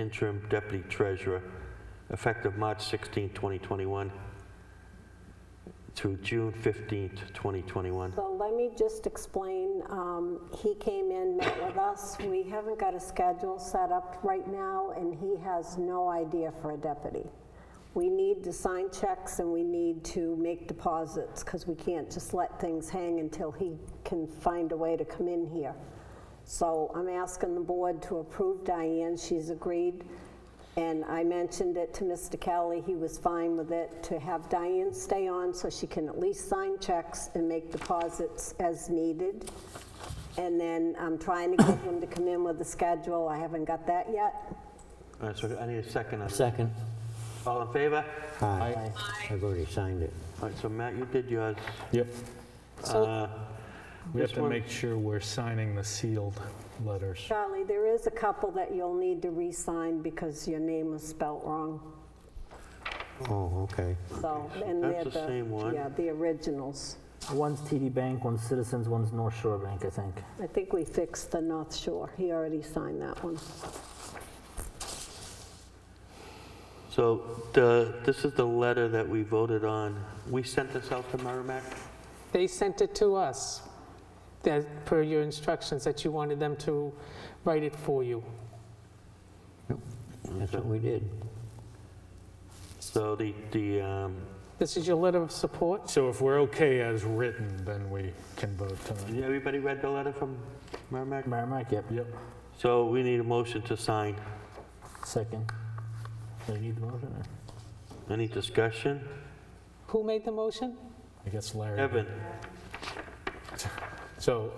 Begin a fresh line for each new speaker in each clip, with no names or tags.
interim deputy treasurer, effective March 16, 2021, through June 15, 2021.
So let me just explain, um, he came in, met with us, we haven't got a schedule set up right now, and he has no idea for a deputy. We need to sign checks and we need to make deposits, because we can't just let things hang until he can find a way to come in here. So I'm asking the board to approve Diane, she's agreed, and I mentioned it to Mr. Kelly, he was fine with it, to have Diane stay on so she can at least sign checks and make deposits as needed. And then I'm trying to get him to come in with a schedule, I haven't got that yet.
All right, so I need a second on that.
Second.
All in favor?
Aye. I've already signed it.
All right, so Matt, you did yours.
Yep.
Uh,
We have
This
to
one-
make sure we're signing the sealed letters.
Charlie, there is a couple that you'll need to re-sign because your name was spelt wrong,
Oh, okay.
so, and they're the...
That's the same one.
Yeah, the originals.
One's TD Bank, one's Citizens, one's North Shore Bank, I think.
I think we fixed the North Shore, he already signed that one.
So the, this is the letter that we voted on. We sent this out to Merrimack?
They sent it to us, that, per your instructions, that you wanted them to write it for you.
That's what we did.
So the, the, um,
This is your letter of support?
So if we're okay as written, then we can vote tonight.
everybody read the letter from Merrimack?
Merrimack, yep.
Yep.
So we need a motion to sign.
Second. Do you need the motion? or-
Any discussion?
Who made the motion?
I guess Larry. did.
Evan?
So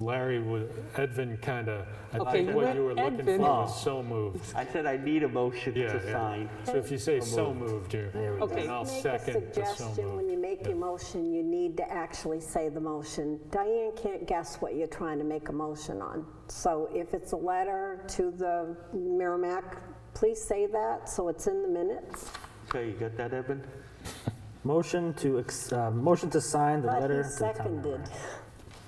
Larry, wa- Edvin kind of, I
Okay,
think
you
what
went
you were looking for
Edvin.
was
Oh.
so moved.
I said I need a motion
Yeah,
to
yeah.
sign.
So if you say so moved, you're,
There we go.
Okay.
and I'll
Make a
second the so
suggestion, when
moved.
you make your motion, you need to actually say the motion. Diane can't guess what you're trying to make a motion on. So if it's a letter to the Merrimack, please say that, so it's in the minutes.
Okay, you got that, Evan?
Motion to, ex- uh, motion to sign the
But he
letter to the town
seconded.
member.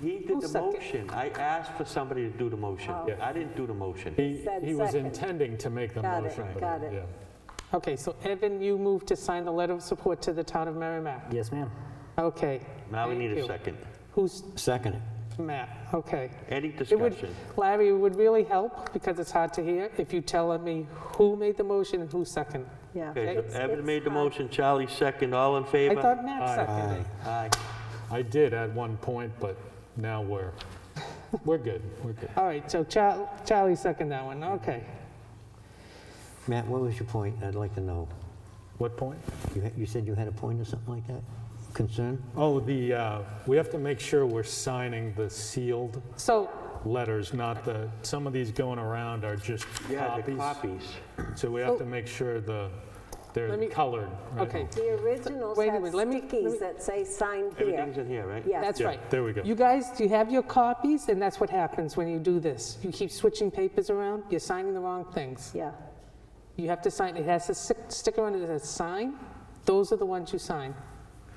He did
Who
the
second- Oh.
motion. I asked for somebody to do the motion.
Yeah.
I didn't do the motion.
He,
said
he was
second.
intending to make the
Got it,
motion. but,
got it.
yeah.
Okay, so Evan, you moved to sign the letter of support to the town of Merrimack.
Yes, ma'am.
Okay.
Now we
thank
need a
you.
second.
Who's
Second.
Matt? Okay.
Any
It would,
discussion?
Larry, it would really help, because it's hard to hear, if you tell me who made the motion and who seconded.
Yeah.
Okay,
It's-
so Evan
it's
made the
fine.
motion, Charlie second, all in
I
favor?
thought Matt seconded.
Aye.
I did at one point, but now we're, we're good, we're good.
All right, so Char- Charlie seconded that one, okay.
Matt, what was your point? I'd like to know.
What point?
You ha- You said you had a point or something like that? Concern?
Oh, the, uh, we have to make sure we're signing the sealed
So,
letters, not the, some of these going around are just
Yeah, the
copies.
copies.
So we have to make sure the, they're
Let me-
colored. right?
okay,
The originals
Wait a
have
minute, let me- let me-
stickies that say sign here.
Everything's in here, right?
Yes.
that's
Yeah,
right.
there we go.
You guys, do you have your copies? And that's what happens when you do this. You keep switching papers around, you're signing the wrong things.
Yeah,
You have to sign, it has a sic- sticker on it that says sign. Those are the ones you sign.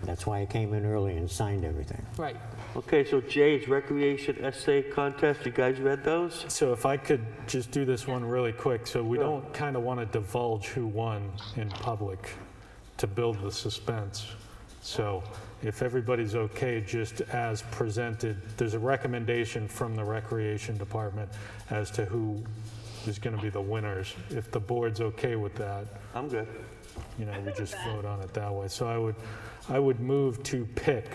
That's why I came in early and signed everything.
Right.
Okay, so Jay's recreation essay contest, you guys read those?
So if I could just do this one really quick, so we don't kind of want to divulge who won in public to build the suspense. So if everybody's okay, just as presented, there's a recommendation from the Recreation Department as to who is going to be the winners. If the board's okay with that,
I'm good.
you know, we just vote on it that way. So I would, I would move to pick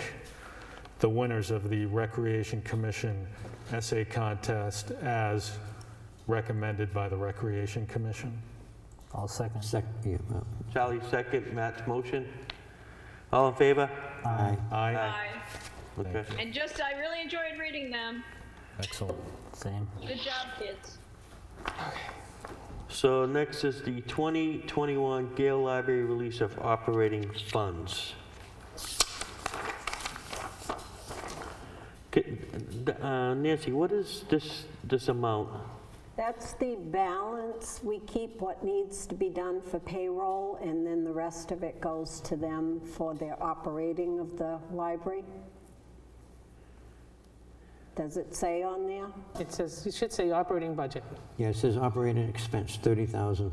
the winners of the Recreation Commission essay contest as recommended by the Recreation Commission.
I'll second.
Sec, yeah, well,
Charlie second, Matt's motion. All in favor?
aye.
Aye.
Aye.
Okay.
And just, I really enjoyed reading them.
Excellent.
Same.
Good job, kids.
So next is the 2021 Gale Library release of operating funds. K- uh, Nancy, what is this, this amount?
that's the balance. We keep what needs to be done for payroll, and then the rest of it goes to them for their operating of the library. Does it say on there?
It says, it should say operating budget.
Yeah, it says operating expense, 30,000